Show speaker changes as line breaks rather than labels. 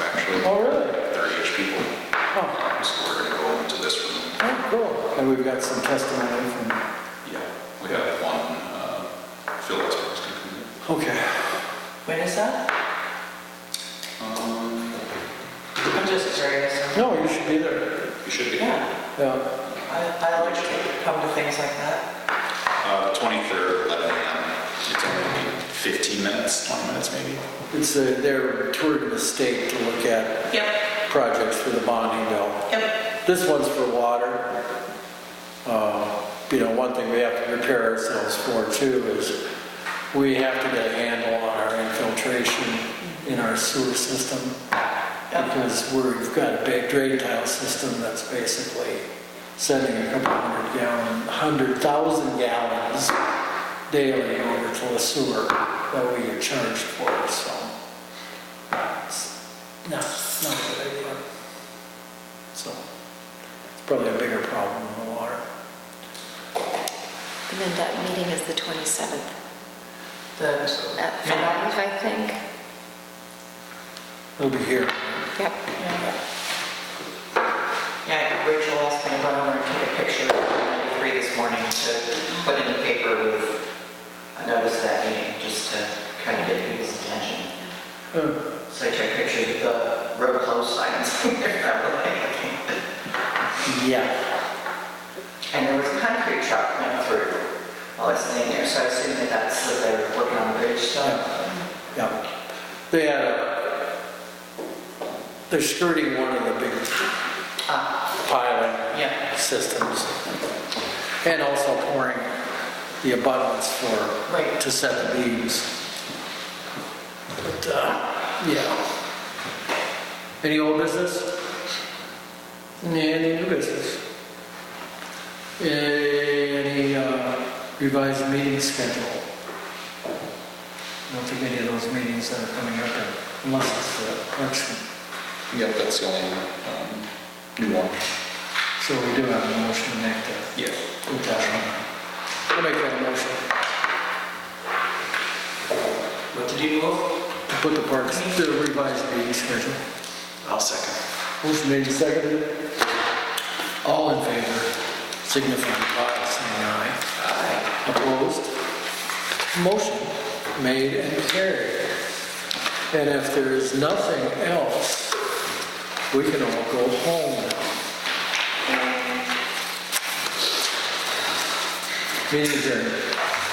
with
Oh, really?
thirty-ish people.
Oh,
So we're gonna go into this room.
oh, cool. And we've got some testimony from,
Yeah. We have one, uh, Phil is supposed to come in.
okay.
When is that?
Um,
I'm just curious.
No, you should be there.
You should be.
Yeah,
Yeah,
I, I like to come to things like that.
Uh, twenty-third, eleven AM. It's only fifteen minutes, twenty minutes maybe.
it's a, they're touring the state to look at
Yep,
projects for the bonding bill.
yep.
This one's for water. Uh, You know, one thing we have to prepare ourselves for too is we have to get a handle on our infiltration in our sewer system. Because we've got a big drain tile system that's basically sending a couple hundred gallon, hundred thousand gallons daily over to the sewer that we get charged for, so. it's No, not a good idea. So it's probably a bigger problem than the water.
And then that meeting is the 27th
The uh,
at
midnight.
5, I think.
It'll be here.
Yep.
Yeah, Rachel asked me if I wanted to take a picture of 93 this morning to put in the paper with a notice of that meeting, just to kind of get people's attention.
Uh,
So I took a picture of the road closed signs.
Yeah.
And there was a concrete truck went through while I was sitting there, so I assume that that's what they were working on the bridge stuff.
Yeah. They had, a- they're skirting one of the big
Ah,
pilot
yeah,
systems. And also pouring the abundance for,
Right.
to set the beams. But, uh, yeah. Any old business? Any new business? Any uh, revised meeting schedule? I don't think any of those meetings that are coming up, are- unless it's the election.
Yep, that's the only, um, new one.
So we do have a motion to make that.
Yeah.
Put that on. I'll make that motion.
What did you move?
To Put the parks, the revised meeting schedule.
I'll second.
Motion made and seconded. All in favor, signify by saying aye. Aye. Opposed? Motion made and carried. And if there is nothing else, we can all go home now. Meeting adjourned.